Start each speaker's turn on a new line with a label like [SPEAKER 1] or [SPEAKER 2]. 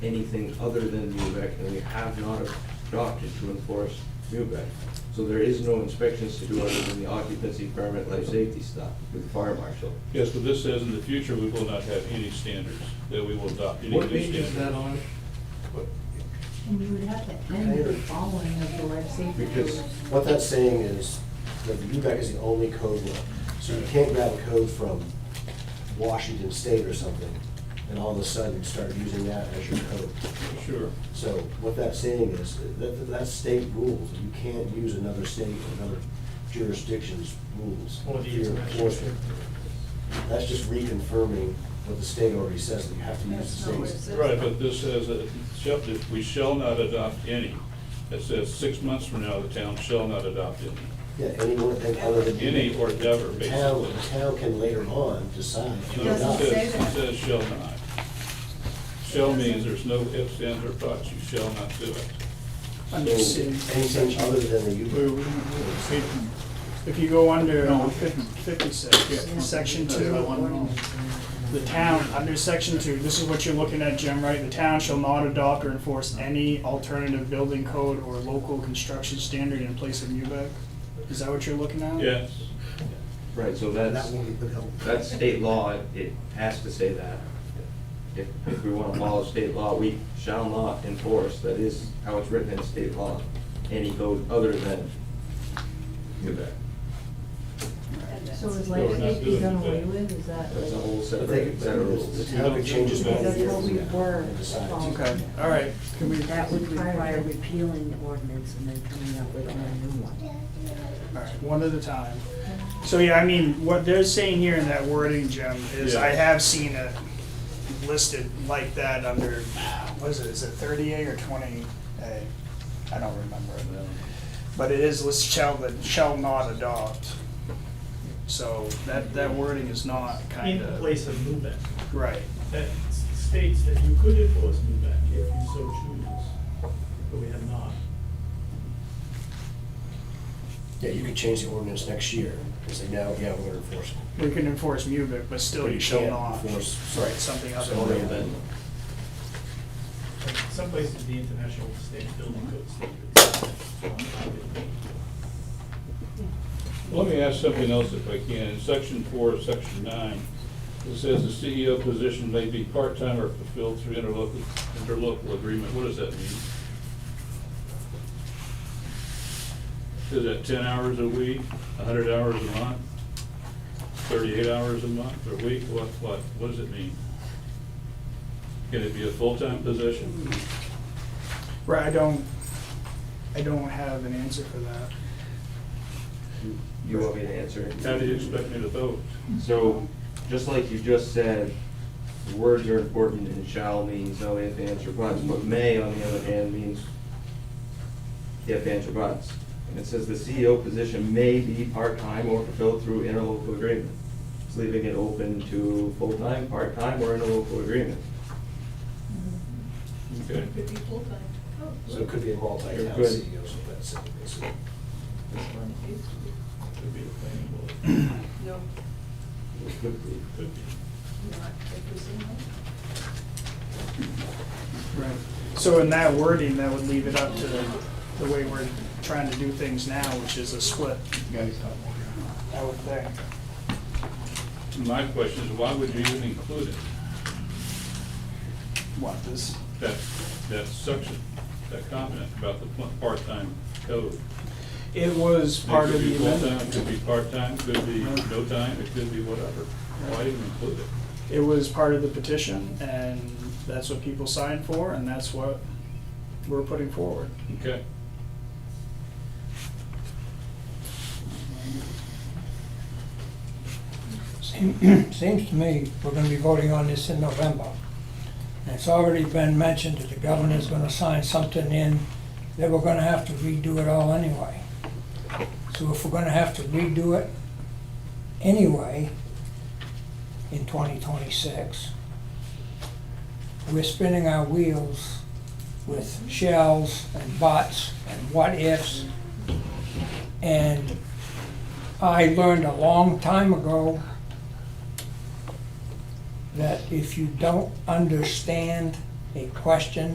[SPEAKER 1] anything other than MUBEC, and we have not adopted to enforce MUBEC. So there is no inspections to do other than the occupancy permit, life safety stuff with the fire marshal.
[SPEAKER 2] Yes, but this says in the future, we will not have any standards, that we will adopt any new
[SPEAKER 3] What
[SPEAKER 2] standards.
[SPEAKER 3] page is that on?
[SPEAKER 4] And you would have to end the following of the life safety.
[SPEAKER 1] Because-
[SPEAKER 5] What that's saying is that the UBEC is the only code book. So you can't grab a code from Washington State or something and all of a sudden start using that as your code.
[SPEAKER 2] Sure.
[SPEAKER 5] So what that's saying is that, that's state rules. You can't use another state or another jurisdiction's rules.
[SPEAKER 3] Or
[SPEAKER 5] for
[SPEAKER 3] the
[SPEAKER 5] your
[SPEAKER 3] international.
[SPEAKER 5] enforcement. That's just reconfirming what the state already says, that you have to use
[SPEAKER 4] That's
[SPEAKER 5] the
[SPEAKER 4] not what it
[SPEAKER 5] state's.
[SPEAKER 4] says.
[SPEAKER 2] Right, but this says that shall- that we shall not adopt any. It says six months from now, the town shall not adopt any.
[SPEAKER 5] Yeah, anyone, other than.
[SPEAKER 2] Any or never,
[SPEAKER 5] The town,
[SPEAKER 2] basically.
[SPEAKER 5] the town can later on decide. to
[SPEAKER 2] No, it
[SPEAKER 5] adopt.
[SPEAKER 4] doesn't say
[SPEAKER 2] says-
[SPEAKER 4] that.
[SPEAKER 2] It says shall not. Shall means there's no ifs, ands, or buts, you shall not do it.
[SPEAKER 6] I'm
[SPEAKER 5] So
[SPEAKER 6] just saying,
[SPEAKER 5] Anything other than the
[SPEAKER 6] we-
[SPEAKER 5] UBEC.
[SPEAKER 6] we- we- if you go under uh, fif-
[SPEAKER 4] Yeah.
[SPEAKER 6] fifty-six, section two, the town, under section two, this is what you're looking at, Jim, right? The town shall not adopt or enforce any alternative building code or local construction standard in place of MUBEC? Is that what you're looking at?
[SPEAKER 2] Yes,
[SPEAKER 1] Right, so that's, that's state law, It- it has to say that. If, if we wanna follow state law, we shall not enforce, that is how it's written in state law, any code other than MUBEC.
[SPEAKER 4] So is
[SPEAKER 2] No, we're
[SPEAKER 4] life
[SPEAKER 2] not
[SPEAKER 4] safety
[SPEAKER 2] doing
[SPEAKER 4] done
[SPEAKER 2] that.
[SPEAKER 4] away with, is that
[SPEAKER 1] That's a
[SPEAKER 4] like?
[SPEAKER 1] whole
[SPEAKER 5] But they,
[SPEAKER 1] separate set of
[SPEAKER 5] but the
[SPEAKER 1] rules.
[SPEAKER 5] town could change its mind.
[SPEAKER 4] That's what we were.
[SPEAKER 5] And decide to-
[SPEAKER 6] Okay, all right. Can we, all
[SPEAKER 7] That would require repealing the ordinance and then coming up with a new one.
[SPEAKER 6] right, one at a time. So, yeah, I mean, what they're saying here in that wording, Jim, is I
[SPEAKER 2] Yeah.
[SPEAKER 6] have seen it listed like that under, what is it, is it thirty A or twenty A? I don't remember. But it is, list shall, that shall not adopt. So that, that wording is not
[SPEAKER 3] In
[SPEAKER 6] kind of,
[SPEAKER 3] place of MUBEC,
[SPEAKER 6] right.
[SPEAKER 3] that s- states that you could enforce MUBEC if you so choose, but we have not.
[SPEAKER 5] Yeah, you could change the ordinance next year and say, now, yeah, we're gonna enforce it.
[SPEAKER 6] We can enforce MUBIC, but still
[SPEAKER 5] But
[SPEAKER 6] you shall
[SPEAKER 5] can't
[SPEAKER 6] not.
[SPEAKER 5] Enforce.
[SPEAKER 6] Right, something other
[SPEAKER 5] something
[SPEAKER 6] than that.
[SPEAKER 3] Like, Some places, the international state building code standards.
[SPEAKER 2] Let me ask something else if I can. In section four, of section nine, it says the CEO position may be part-time or fulfilled through interlocal, interlocal agreement. What does that mean? Is that ten hours a week, hundred hours a month, thirty-eight hours a month or week? What, what, what does it mean? Can it be a full-time position?
[SPEAKER 6] Right, I don't, I don't have an answer for that.
[SPEAKER 1] You want me to answer?
[SPEAKER 2] How do you expect me to vote?
[SPEAKER 1] So, just like you just said, words are important and shall means no ifs, ands, or buts, but may, on the other hand, means if, ands, or buts. And it says the CEO position may be part-time or fulfilled through interlocal agreement. It's leaving it open to full-time, part-time, or interlocal agreement.
[SPEAKER 2] Okay.
[SPEAKER 5] So it could be a multi-town
[SPEAKER 1] Good.
[SPEAKER 5] CEO, so that's it, basically.
[SPEAKER 2] Could be the planning board.
[SPEAKER 1] It could be.
[SPEAKER 2] Could be.
[SPEAKER 4] Mm-hmm.
[SPEAKER 6] Right. So in that wording, that would leave it up to the way we're trying to do things now, which is a split. I would think.
[SPEAKER 2] My question is, why would you even include it,
[SPEAKER 6] What, this?
[SPEAKER 2] that, that section, that comment about the pl- part-time code?
[SPEAKER 6] It was part
[SPEAKER 2] It
[SPEAKER 6] of
[SPEAKER 2] could be
[SPEAKER 6] the
[SPEAKER 2] full-time,
[SPEAKER 6] amendment.
[SPEAKER 2] Could be part-time, could be no time, it could be whatever. Why even include it?
[SPEAKER 6] It was part of the petition, and that's what people signed for, and that's what we're putting forward.
[SPEAKER 2] Okay,
[SPEAKER 8] Seem- Seems to me we're gonna be voting on this in November. And it's already been mentioned that the governor's gonna sign something in that we're gonna have to redo it all anyway. So if we're gonna have to redo it anyway in twenty twenty-six, we're spinning our wheels with shells and buts and what ifs. And I learned a long time ago that if you don't understand a question